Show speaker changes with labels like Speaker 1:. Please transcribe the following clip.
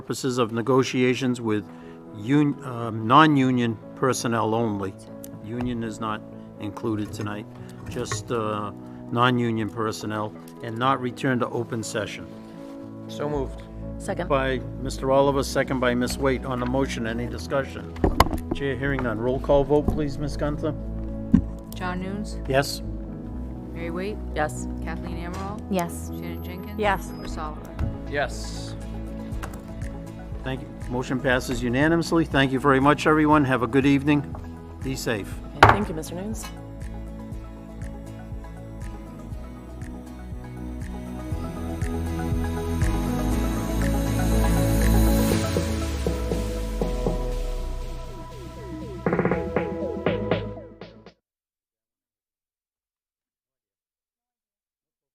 Speaker 1: purposes of negotiations with un, um, non-union personnel only. Union is not included tonight, just, uh, non-union personnel, and not return to open session.
Speaker 2: So moved.
Speaker 3: Second.
Speaker 1: By Mr. Oliver, second by Ms. Waite. On the motion, any discussion? Chair hearing none. Roll call vote, please, Ms. Gunther?
Speaker 4: John Nunes,
Speaker 1: Yes?
Speaker 4: Mary Waite,
Speaker 3: Yes.
Speaker 4: Kathleen Amaral,
Speaker 3: Yes.
Speaker 4: Shannon Jenkins.
Speaker 3: Yes.
Speaker 4: Chris Oliver.
Speaker 2: Yes.
Speaker 1: Thank you. Motion passes unanimously. Thank you very much, everyone. Have a good evening. Be safe.
Speaker 3: Thank you, Mr. News.